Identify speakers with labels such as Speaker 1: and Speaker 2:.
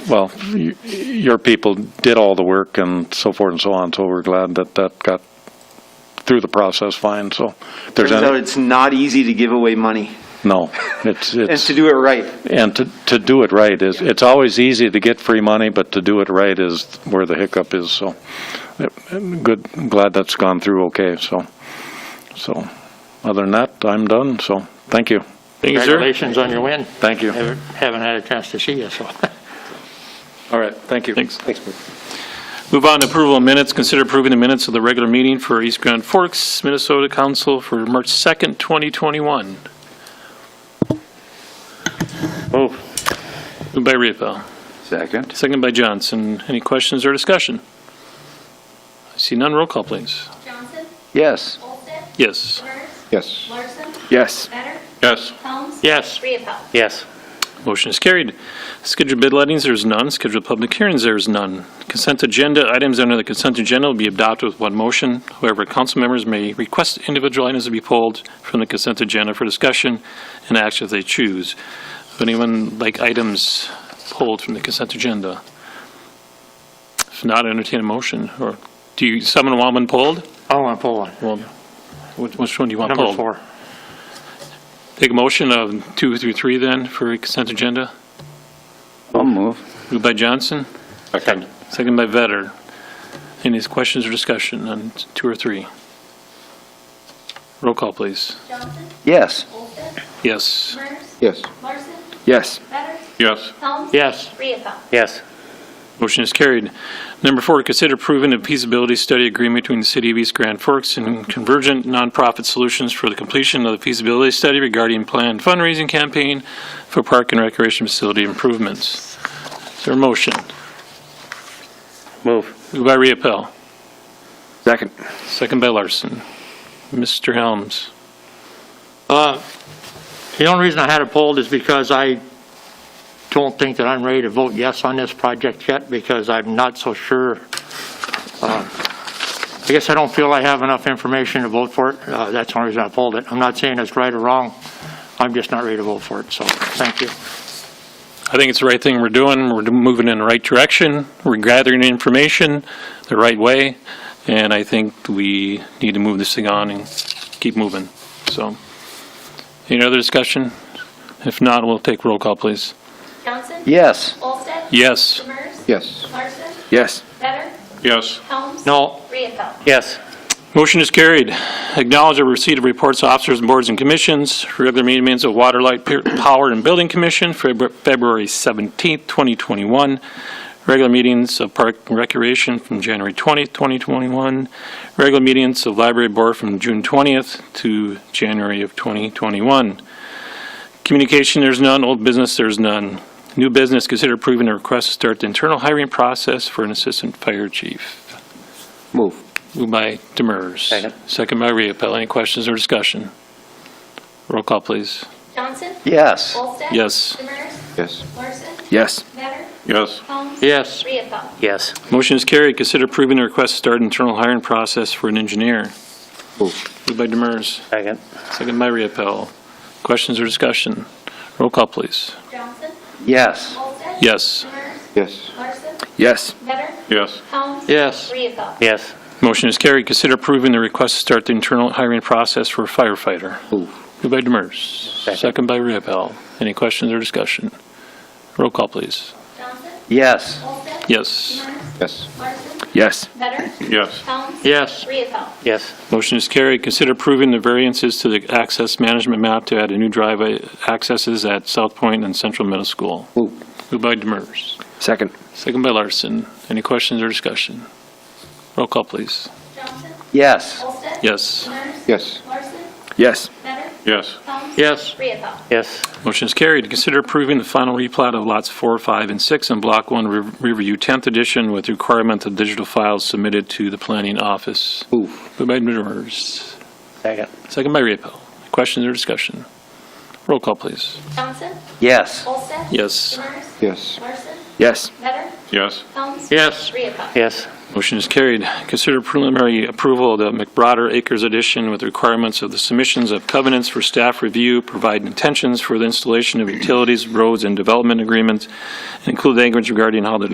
Speaker 1: well, y- your people did all the work and so forth and so on, so we're glad that that got through the process fine, so. if there's
Speaker 2: Turns out
Speaker 1: any-
Speaker 2: it's not easy to give away money
Speaker 1: No, it's,
Speaker 2: and
Speaker 1: it's,
Speaker 2: to do it right.
Speaker 1: and to, to do it right is, it's always easy to get free money, but to do it right is where the hiccup is, so. uh, Good, I'm glad that's gone through okay, so. So, other than that, I'm done, so, thank you.
Speaker 3: Congratulations on your win.
Speaker 1: Thank you.
Speaker 3: Haven't haven't had a chance to see you, so.
Speaker 1: All right, thank you.
Speaker 4: Thanks. Move on to approval of minutes. Consider approving the minutes of the regular meeting for East Grand Forks, Minnesota Council for March 2nd, 2021.
Speaker 1: Oh.
Speaker 3: Move.
Speaker 4: Moved by Ravel,
Speaker 5: Second.
Speaker 4: seconded by Johnson. Any questions or discussion? I see none. Roll call, please.
Speaker 6: Johnson?
Speaker 5: Yes.
Speaker 6: Olsted?
Speaker 4: Yes.
Speaker 6: Burns?
Speaker 5: Yes.
Speaker 6: Larson?
Speaker 5: Yes.
Speaker 6: Better?
Speaker 5: Yes.
Speaker 6: Helms?
Speaker 3: Yes.
Speaker 6: Rehappel?
Speaker 3: Yes.
Speaker 4: Motion is carried. Scheduled bid lettings, there is none. Scheduled public hearings, there is none. Consent agenda, items under the consent agenda will be adopted with one motion. However, council members may request individual items to be pulled from the consent agenda for discussion and action if they choose. Would anyone like items pulled from the consent agenda? If not, entertain a motion, or do you, someone want one pulled?
Speaker 3: I want to pull one.
Speaker 4: Well, which which one do you want pulled?
Speaker 3: Number four.
Speaker 4: Take a motion of two through three then for consent agenda.
Speaker 5: I'll move.
Speaker 4: Moved by Johnson.
Speaker 5: Second.
Speaker 4: Second by Vetter. Any questions or discussion on two or three? Roll call, please.
Speaker 6: Johnson?
Speaker 5: Yes.
Speaker 6: Olsted?
Speaker 4: Yes.
Speaker 6: Burns?
Speaker 5: Yes.
Speaker 6: Larson?
Speaker 5: Yes.
Speaker 6: Better?
Speaker 5: Yes.
Speaker 6: Helms?
Speaker 3: Yes.
Speaker 6: Rehappel?
Speaker 3: Yes.
Speaker 4: Motion is carried. Number four, consider approving a feasibility study agreement between the City of East Grand Forks and Convergent Nonprofit Solutions for the completion of the feasibility study regarding planned fundraising campaign for park and recreation facility improvements. Is there a motion?
Speaker 3: Move.
Speaker 4: Moved by Riepel,
Speaker 5: Second.
Speaker 4: second by Larson. Mr. Helms.
Speaker 3: Uh, The only reason I had it pulled is because I don't think that I'm ready to vote yes on this project yet because I'm not so sure. uh, I guess I don't feel I have enough information to vote for it. Uh, That's the only reason I pulled it. I'm not saying it's right or wrong. I'm just not ready to vote for it, so thank you.
Speaker 4: I think it's the right thing we're doing. We're moving in the right direction. We're gathering information the right way. And I think we need to move this thing on and keep moving. So, any other discussion? If not, we'll take roll call, please.
Speaker 6: Johnson?
Speaker 5: Yes.
Speaker 6: Olsted?
Speaker 4: Yes.
Speaker 6: Burns?
Speaker 5: Yes.
Speaker 6: Larson?
Speaker 5: Yes.
Speaker 6: Better?
Speaker 5: Yes.
Speaker 6: Helms?
Speaker 3: No.
Speaker 6: Rehappel?
Speaker 3: Yes.
Speaker 4: Motion is carried. Acknowledge the receipt of reports of officers, and boards, and commissions. Regular meetings of Water, Light, Pe- Power, and Building Commission, Febru- February 17th, 2021. Regular meetings of Park and Recreation from January 20th, 2021. Regular meetings of Library Board from June 20th to January of 2021. Communication, there's none. Old business, there's none. New business, consider approving a request to start the internal hiring process for an assistant fire chief.
Speaker 5: Move.
Speaker 4: Moved by Demers.
Speaker 3: Second.
Speaker 4: Second by Riepel. Any questions or discussion? Roll call, please.
Speaker 6: Johnson?
Speaker 5: Yes.
Speaker 6: Olsted?
Speaker 4: Yes.
Speaker 6: Burns?
Speaker 5: Yes.
Speaker 6: Larson?
Speaker 5: Yes.
Speaker 6: Better?
Speaker 5: Yes.
Speaker 6: Helms?
Speaker 3: Yes.
Speaker 6: Rehappel?
Speaker 3: Yes.
Speaker 4: Motion is carried. Consider approving the request to start internal hiring process for an engineer.
Speaker 5: Move.
Speaker 4: Moved by Demers.
Speaker 3: Second.
Speaker 4: Second by Riepel. Questions or discussion? Roll call, please.
Speaker 6: Johnson?
Speaker 5: Yes.
Speaker 6: Olsted?
Speaker 4: Yes.
Speaker 6: Burns?
Speaker 5: Yes.
Speaker 6: Larson?
Speaker 5: Yes.
Speaker 6: Better?
Speaker 5: Yes.
Speaker 6: Helms?
Speaker 3: Yes.
Speaker 6: Rehappel?
Speaker 3: Yes.
Speaker 4: Motion is carried. Consider approving the request to start the internal hiring process for a firefighter.
Speaker 5: Move.
Speaker 4: Moved by Demers.
Speaker 3: Second.
Speaker 4: Second by Riepel. Any questions or discussion? Roll call, please.
Speaker 6: Johnson?
Speaker 5: Yes.
Speaker 6: Olsted?
Speaker 4: Yes.
Speaker 6: Burns?
Speaker 5: Yes.
Speaker 6: Larson?
Speaker 5: Yes.
Speaker 6: Better?
Speaker 5: Yes.
Speaker 6: Helms?
Speaker 3: Yes.
Speaker 6: Rehappel?
Speaker 3: Yes.
Speaker 4: Motion is carried. Consider approving the variances to the access management map to add a new driveway accesses at South Point and Central Middle School.
Speaker 5: Move.
Speaker 4: Moved by Demers.
Speaker 5: Second.
Speaker 4: Second by Larson. Any questions or discussion? Roll call, please.
Speaker 6: Johnson?
Speaker 5: Yes.
Speaker 6: Olsted?
Speaker 4: Yes.
Speaker 6: Burns?
Speaker 5: Yes.
Speaker 6: Larson?
Speaker 5: Yes.
Speaker 6: Better?
Speaker 5: Yes.
Speaker 6: Helms?
Speaker 3: Yes.
Speaker 6: Rehappel?
Speaker 3: Yes.
Speaker 4: Motion is carried. Consider approving the final replat of lots 4, 5, and 6 in Block 1 Riv- Riverview 10th Edition with requirement of digital files submitted to the planning office.
Speaker 5: Move.
Speaker 4: Moved by Demers.
Speaker 3: Second.
Speaker 4: Second by Riepel. Questions or discussion? Roll call, please.
Speaker 6: Johnson?
Speaker 5: Yes.
Speaker 6: Olsted?
Speaker 4: Yes.
Speaker 6: Demers?
Speaker 5: Yes.
Speaker 6: Larson?
Speaker 5: Yes.
Speaker 6: Better?
Speaker 5: Yes.
Speaker 6: Helms?
Speaker 3: Yes.
Speaker 6: Rehappel?
Speaker 3: Yes.
Speaker 4: Motion is carried. Consider preliminary approval of the McBroder Acres addition with requirements of the submissions of covenants for staff review, provide intentions for the installation of utilities, roads, and development agreements, and include language regarding how the